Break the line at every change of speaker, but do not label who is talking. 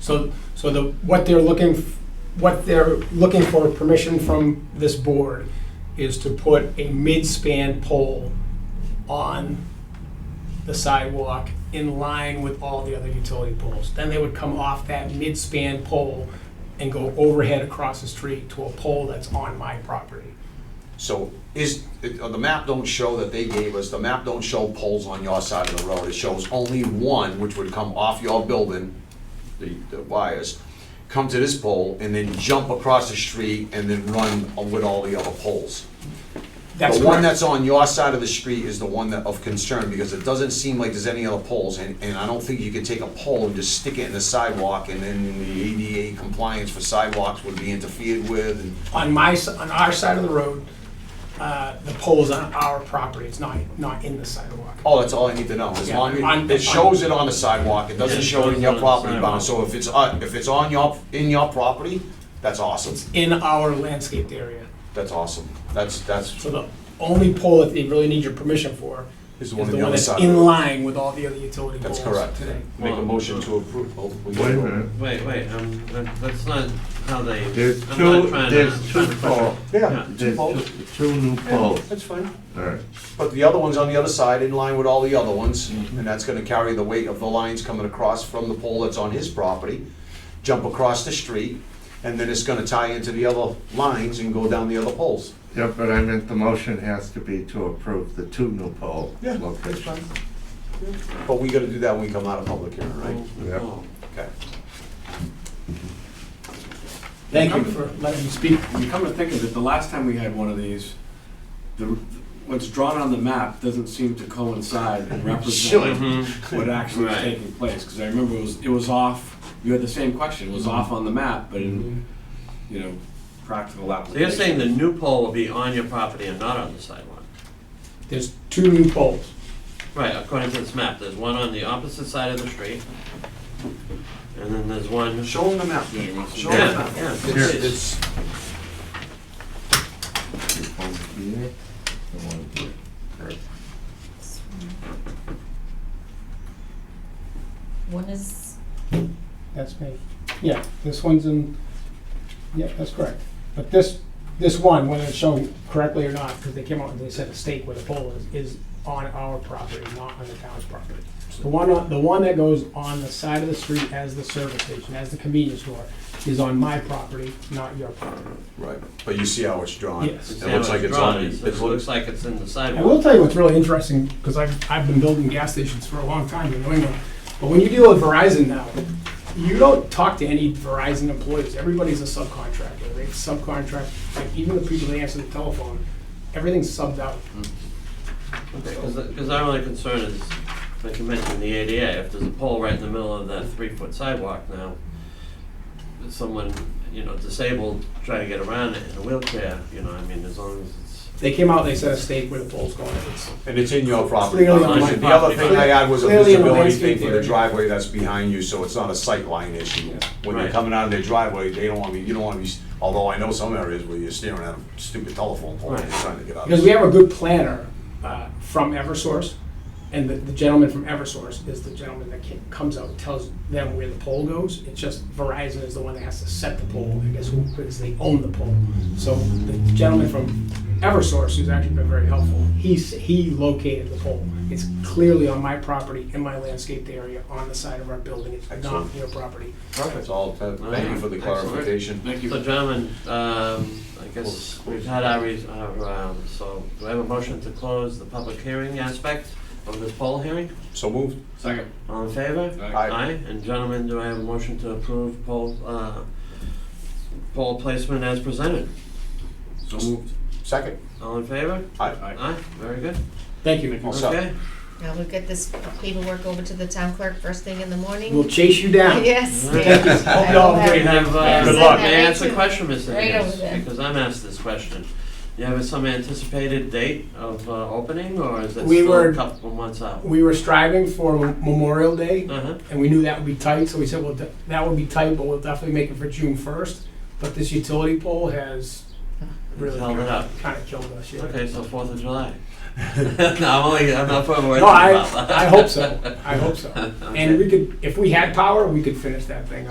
So, so the, what they're looking, f- what they're looking for permission from this board is to put a mid-span pole on the sidewalk in line with all the other utility poles. Then they would come off that mid-span pole and go overhead across the street to a pole that's on my property.
So is, uh, the map don't show that they gave us, the map don't show poles on your side of the road. It shows only one, which would come off your building, the, the wires, come to this pole and then jump across the street and then run with all the other poles.
That's
The one
correct.
that's on your side of the street is the one that of concern, because it doesn't seem like there's any other poles, and, and I don't think you could take a pole and just stick it in the sidewalk, and then the ADA compliance for sidewalks would be interfered with, and
On my, s- on our side of the road, uh, the pole's on our property, it's not, not in the sidewalk.
Oh, that's all I need to know, as
Yeah,
long
on-
as, it shows it on the sidewalk, it doesn't
Yeah, it
show it in
shows
your
on the
property bound, so
sidewalk.
if it's, uh, if it's on your, in your property, that's awesome,
In our landscaped area.
that's awesome, that's, that's,
So the only pole that they really need your permission for
Is
is
the
the
one
one
on the other
that's
side.
in line with all the other utility poles
that's
today.
correct. Make a
Well-
motion to approve. Oh, we-
Wait a minute,
Wait, wait, um, that- that's not how they.
there's
I'm not
two,
trying to-
there's two
trying to-
poles,
Yeah,
Yeah.
there's
poles.
two, two new poles,
that's fine.
alright.
But the other one's on the other side, in line with all the other ones, and that's gonna carry the weight of the lines coming across from the pole that's on his property, jump across the street, and then it's gonna tie into the other lines and go down the other poles.
Yeah, but I meant the motion has to be to approve the two new pole
Yeah,
locations.
But we gotta do that when we come out of public hearing, right?
Yeah.
Oh.
Okay.
Thank you for letting me speak.
When you come to think of it, the last time we had one of these, the, what's drawn on the map doesn't seem to coincide and represent what actually is
Right.
taking place, because I remember it was, it was off, you had the same question, it was off on the map, but in, you know, practical
So
application.
you're saying the new pole will be on your property and not on the sidewalk?
There's two new poles.
Right, according to this map, there's one on the opposite side of the street, and then there's one.
Show them the map.
Yeah, you want to-
Show
Yeah,
them the
yeah,
map.
here.
It's, it's,
One here, and one here. Right.
One is,
That's me. Yeah, this one's in, yeah, that's correct. But this, this one, whether it's shown correctly or not, because they came out and they said a stake where the pole is, is on our property, not on the town's property. The one, on- the one that goes on the side of the street as the service station, as the convenience store, is on my property, not your property.
right, but you see how it's drawn?
Yes.
It
See how
looks
it's
like it's
drawn,
on,
it's-
it
It looks
looks,
like it's in
I
the
will
sidewalk.
tell you what's really interesting, because I've, I've been building gas stations for a long time in New England, but when you deal with Verizon now, you don't talk to any Verizon employees, everybody's a subcontractor, they subcontract, like, even the people that answer the telephone, everything's subbed out.
Because our only concern is, like you mentioned, the ADA, if there's a pole right in the middle of that three-foot sidewalk now, if someone, you know, disabled, trying to get around it in a wheelchair, you know, I mean, as long as it's.
They came out, they set a stake where the pole's going, it's,
and it's in your property.
Clearly on my
The other thing I had was a
Clearly in the
visibility
landscape
thing for the
area.
driveway that's behind you, so it's not a sight line issue. When they're
Right.
coming out of their driveway, they don't want to, you don't want to be, although I know some areas where you're staring at a stupid telephone pole, and
Right.
you're trying to get out. of
because
it.
we have a good planner, uh, from Eversource, and the, the gentleman from Eversource is the gentleman that ca- comes out, and tells them where the pole goes, it's just Verizon is the one that has to set the pole, I guess, who- because they own the pole. So the gentleman from Eversource, who's actually been very helpful, he's, he located the pole. It's clearly on my property, in my landscaped area, on the side of our building, it's not
Excellent.
your property.
That's all, uh, thank you for the
Excellent.
clarification.
Thank
So
you.
gentlemen, um, I guess we've had our reason, our, um, so do I have a motion to close the public hearing aspect of this poll hearing?
So moved.
Second.
All in favor?
Aye.
and gentlemen, do I have a motion to approve poll, uh, poll placement as presented?
So moved.
Second.
All in favor?
Aye.
Aye, very good.
Thank you.
All set.
Okay,
now we'll get this paperwork over to the town clerk first thing in the morning.
We'll chase you down.
Yes.
Hope
yes. I
y'all
will
agree.
we
have-
have, uh,
Yes,
Good luck.
May I ask a
Right
question, Mr.
over
Higgins?
there.
Because I'm asked this question. You have some anticipated date of uh, opening, or is it
We
still
were-
a couple months out?
We were striving for Memorial Day,
Uh-huh.
and we knew that would be tight, so we said, well, th- that would be tight, but we'll definitely make it for June first. But this utility pole has really
Held it up.
kind of killed us, yeah.
uh, Okay, so Fourth of July. no, I'm only. I'm not putting words
No,
in
I,
your mouth.
I hope so, I hope so.
uh, Okay.
And we could, if we had power, we could finish that thing up.